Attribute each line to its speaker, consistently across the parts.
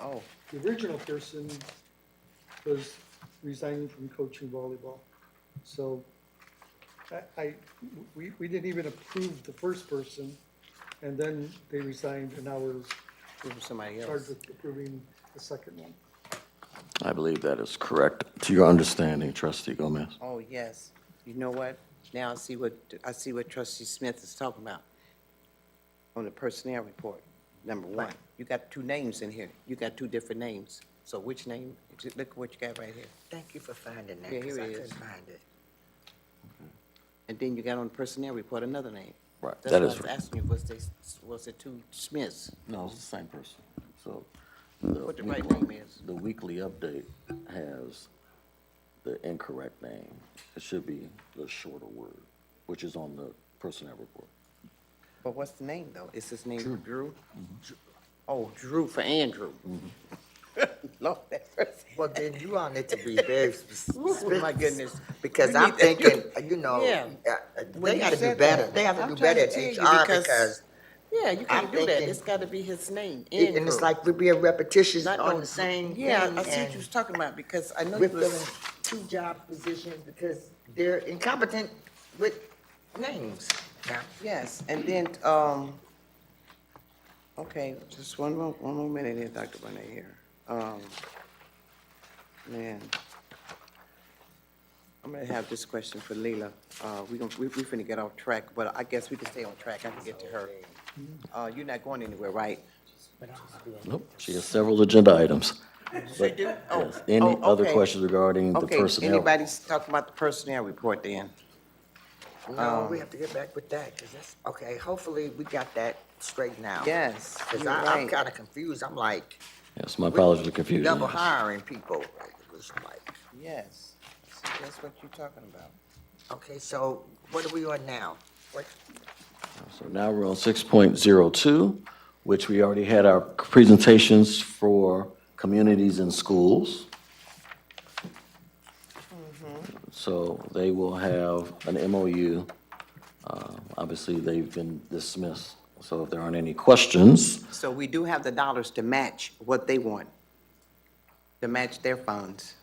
Speaker 1: Oh,
Speaker 2: The original person was resigning from coaching volleyball. So I, I- we, we didn't even approve the first person, and then they resigned, and now we're
Speaker 1: it was somebody
Speaker 2: charged
Speaker 1: else.
Speaker 2: with approving the second one.
Speaker 3: I believe that is correct, to your understanding, trustee Gomez.
Speaker 1: Oh, yes. You know what? Now I see what, I see what trustee Smith is talking about on the personnel report, number one. You got two names in here. You got two different names. So which name? Just Look what you got right here.
Speaker 4: Thank you for finding that,
Speaker 1: Yeah,
Speaker 4: because
Speaker 1: here
Speaker 4: I
Speaker 1: it is.
Speaker 4: couldn't find it.
Speaker 1: And then you got on the personnel report another name.
Speaker 3: Right,
Speaker 1: That's what
Speaker 3: that
Speaker 1: I
Speaker 3: is
Speaker 1: was
Speaker 3: right.
Speaker 1: asking you, was they, was it two Smiths?
Speaker 3: No, it's the same person, so.
Speaker 1: What the right weekly- name is.
Speaker 3: The weekly update has the incorrect name. It should be the shorter word, which is on the personnel report.
Speaker 1: But what's the name, though? Is his name Drew? Oh, Drew for Andrew. Lord, that person.
Speaker 4: Well, then you all need to be very
Speaker 1: Oh,
Speaker 4: specific.
Speaker 1: my goodness.
Speaker 4: Because
Speaker 1: You
Speaker 4: I'm
Speaker 1: need to-
Speaker 4: thinking, you know,
Speaker 1: Yeah.
Speaker 4: uh, uh,
Speaker 1: When
Speaker 4: they
Speaker 1: you
Speaker 4: gotta do
Speaker 1: said
Speaker 4: better,
Speaker 1: that,
Speaker 4: they have to
Speaker 1: I'm
Speaker 4: do better at
Speaker 1: trying to tell you
Speaker 4: HR because,
Speaker 1: Yeah, you
Speaker 4: I'm
Speaker 1: can't do that.
Speaker 4: thinking-
Speaker 1: It's gotta be his name,
Speaker 4: it- and
Speaker 1: Andrew.
Speaker 4: it's like we're being repetitious
Speaker 1: Not no
Speaker 4: on
Speaker 1: Drew.
Speaker 4: the same thing.
Speaker 1: Yeah, I see what
Speaker 4: and
Speaker 1: you was talking about, because I know
Speaker 4: We're
Speaker 1: you
Speaker 4: filling
Speaker 1: was,
Speaker 4: two job positions because they're incompetent with names now.
Speaker 1: yes, and then, um, okay, just one more, one more minute here, Dr. Bonet here. Um, man. I'm gonna have this question for Leila. Uh, we gonna, we, we finna get off track, but I guess we can stay on track. I can get to her. Uh, you're not going anywhere, right?
Speaker 3: Nope, she has several agenda items. But,
Speaker 1: do? Oh,
Speaker 3: yes, Any
Speaker 1: oh,
Speaker 3: other
Speaker 1: okay.
Speaker 3: questions regarding the
Speaker 1: Okay,
Speaker 3: personnel?
Speaker 1: anybody's talking about the personnel report then?
Speaker 4: No,
Speaker 1: Um,
Speaker 4: we have to get back with that, because that's, okay, hopefully we got that straightened out.
Speaker 1: Yes,
Speaker 4: Because
Speaker 1: you're
Speaker 4: Oh. I, I'm
Speaker 1: right.
Speaker 4: kinda confused, I'm like,
Speaker 3: Yes, my apologies for confusion.
Speaker 4: double
Speaker 3: yes.
Speaker 4: hiring people. Like, it was like,
Speaker 1: Yes, See, that's what you're talking about.
Speaker 4: Okay, so what are we on now? What,
Speaker 3: So now we're on six point zero two, which we already had our presentations for communities and schools. So they will have an MOU. Uh, Obviously, they've been dismissed, so if there aren't any questions,
Speaker 1: So we do have the dollars to match what they want, to match their funds.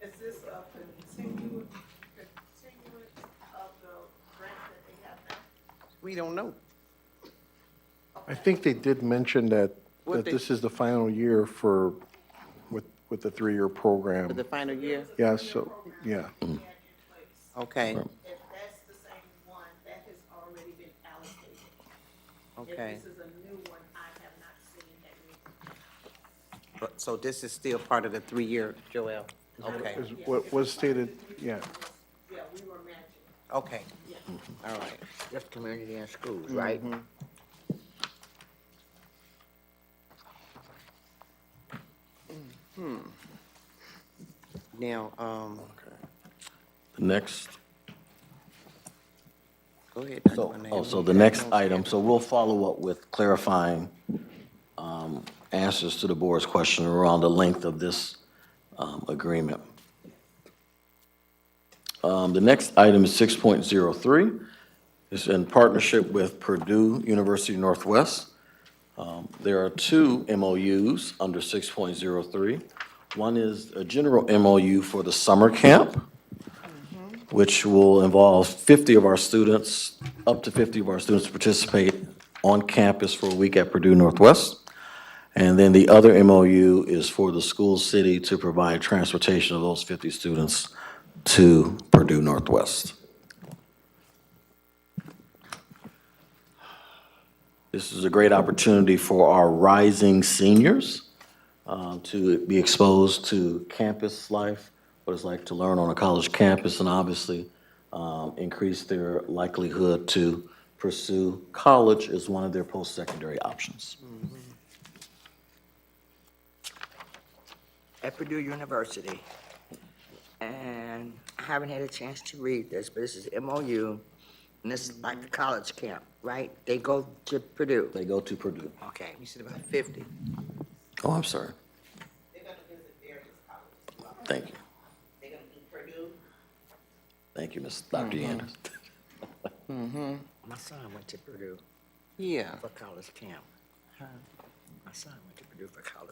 Speaker 5: Is this a continued, continuance of the grant that they have now?
Speaker 1: We don't know.
Speaker 6: I think they did mention that,
Speaker 1: What
Speaker 6: that
Speaker 1: they-
Speaker 6: this is the final year for, with, with the three-year
Speaker 1: For the
Speaker 6: program.
Speaker 1: final year?
Speaker 6: Yeah, so, yeah.
Speaker 5: They had in place.
Speaker 1: Okay,
Speaker 5: If that's the same one, that has already been allocated.
Speaker 1: okay.
Speaker 5: If this is a new one, I have not seen that. yet.
Speaker 1: But- So this is still part of the three-year, Joel? Okay,
Speaker 6: Is what was stated, yeah.
Speaker 5: Yeah, we were matching.
Speaker 1: okay. All right. Mm-hmm.
Speaker 4: that's community and schools, right?
Speaker 1: Hmm. Now, um,
Speaker 3: the next,
Speaker 1: go ahead. Dr.
Speaker 3: so,
Speaker 1: Bonet.
Speaker 3: oh, so the next item, so we'll follow up with clarifying um, answers to the board's question around the length of this um, agreement. Um, The next item is 6.03. It's in partnership with Purdue University Northwest. Um, There are two MOUs under 6.03. One is a general MOU for the summer camp, which will involve 50 of our students, up to 50 of our students to participate on campus for a week at Purdue Northwest. And then the other MOU is for the school city to provide transportation of those 50 students to Purdue Northwest. This is a great opportunity for our rising seniors um, to be exposed to campus life, what it's like to learn on a college campus, and obviously um, increase their likelihood to pursue college as one of their post-secondary options.
Speaker 4: At Purdue University. And I haven't had a chance to read this, but this is MOU, and this is like the college camp, right? They go to Purdue.
Speaker 3: They go to Purdue.
Speaker 4: Okay,
Speaker 1: You said about fifty.
Speaker 3: Oh, I'm sorry.
Speaker 5: They're gonna visit various colleges throughout.
Speaker 3: Thank you.
Speaker 5: They're gonna do Purdue,
Speaker 3: Thank you, Ms. Dr. Yanders.
Speaker 4: my son went to Purdue
Speaker 1: Yeah.
Speaker 4: for college camp. My son went to Purdue for college